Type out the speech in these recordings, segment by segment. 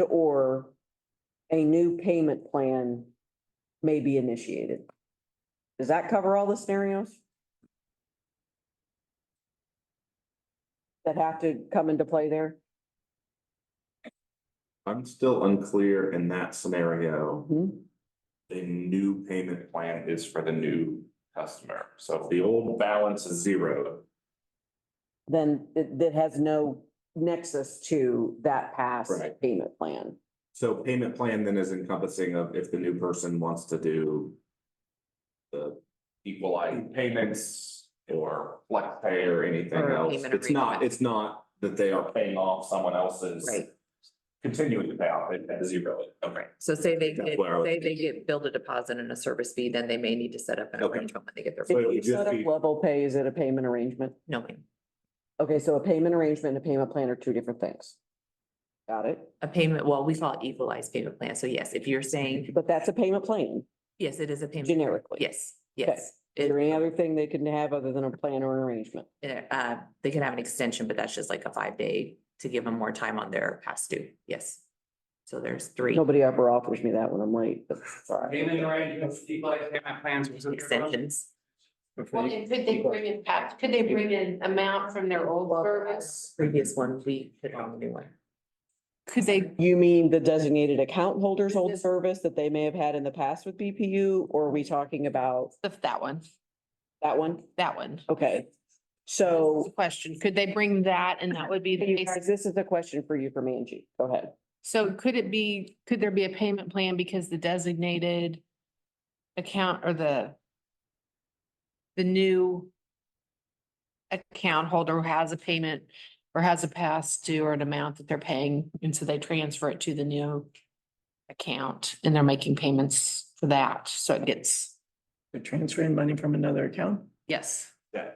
and/or a new payment plan may be initiated. Does that cover all the scenarios? That have to come into play there? I'm still unclear in that scenario. Hmm? The new payment plan is for the new customer. So if the old balance is zero, Then it, that has no nexus to that past Right. payment plan. So payment plan then is encompassing of if the new person wants to do. The equalized payments or flex pay or anything Or a else. payment It's not, agreement. it's not that they are paying off someone else's. Right. Continuing to pay off it at zero. Okay. Right, so say they That's get, where I was say they get billed a deposit and a service fee, then they may need to set up an Okay. arrangement when they get their. So it If would you just set up be- level pay, is it a payment arrangement? No, ma'am. Okay, so a payment arrangement and a payment plan are two different things. Got it? a payment, well, we call it equalized payment plan, so yes, if you're saying, But that's a payment plan yes, it is a payment. generically. Yes, yes. Is It- there any other thing they can have other than a plan or an arrangement? uh, they can have an extension, but that's just like a five day to give them more time on their past due, yes. So there's three. Nobody ever offers me that when I'm late, but sorry. Payment arrangements, equalized payment plans. was it- Extensions. Well, and could they bring in, Pat, could they bring in amount from their old service? Previous one, we put on the new one. Could they? You mean the designated account holders old service that they may have had in the past with BPU, or are we talking about That one, that one? that one. Okay. So Question, could they bring that and that would be the You guys, basic? This is a question for you from Angie. Go ahead. So could it be, could there be a payment plan because the designated account or the the new account holder has a payment or has a past due or an amount that they're paying, and so they transfer it to the new account and they're making payments for that, so it gets, They're transferring money from another account? yes, Yeah.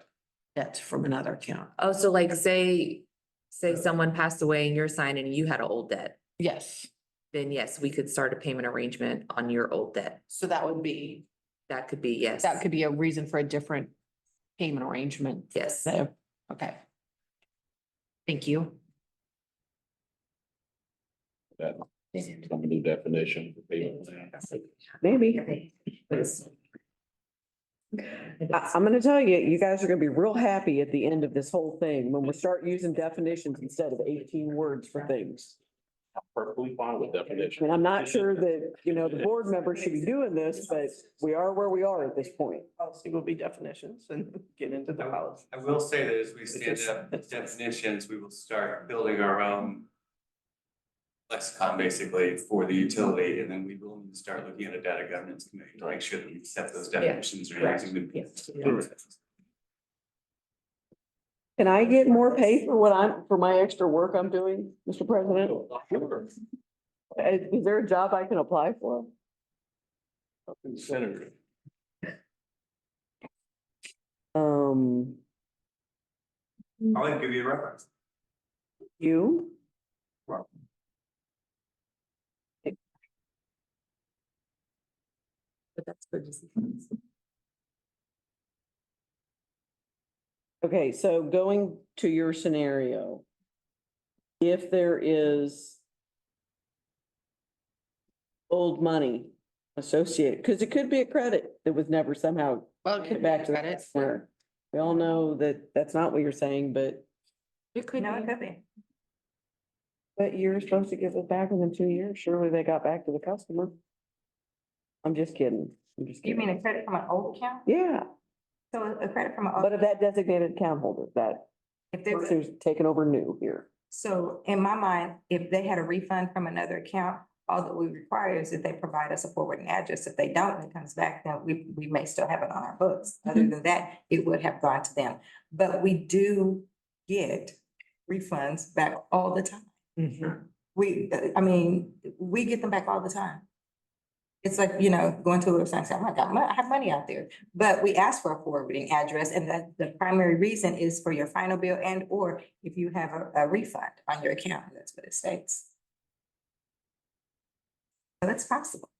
that's from another account. Oh, so like say, say someone passed away and you're signing, and you had an old debt, Yes, then yes, we could start a payment arrangement on your old debt. so that would be, That could be, yes. that could be a reason for a different payment arrangement. Yes. So, okay. Thank you. Some new definition for payment plan. Maybe. I, am gonna tell you, you guys are gonna be real happy at the end of this whole thing when we start using definitions instead of eighteen words for things. Perfectly fine with I definition. mean, I'm not sure that, you know, the board members should be doing this, but we are where we are at this point. Policy will be definitions and get into the policy. I will say that as we stand up with definitions, we will start building our own lexicon basically for the utility, and then we will need to start looking at a data governance committee to make sure that we set those definitions and using them. Can I get more pay for what I'm, for my extra work I'm doing, Mr. President? Is, is there a job I can apply for? Senator. Um, I'll give you a reference. you? But that's good to see. Okay, so going to your scenario. If there is. Old money associated, because it could be a credit that was never somehow Well, put back to the customer. We all know that that's not what you're saying, but. It could No, it be. could be. But you're supposed to give it back within two years. Surely they got back to the customer. I'm just kidding. I'm just kidding. a credit from an old account? Yeah, So a credit from an, but old of that designated account holder, that if person there's, who's taking over new here. so in my mind, if they had a refund from another account, all that we require is that they provide us a forwarding address. If they don't, and it comes back, then we, we may still have it on our books. Other than that, it would have gone to them. But we do get refunds back all the time. We, I mean, we get them back all the time. It's like, you know, going to a website and saying, oh my God, I have money out there. But we ask for a forwarding address and that the primary reason is for your final bill and or if you have a, a refund on your account, that's what it states. So that's possible.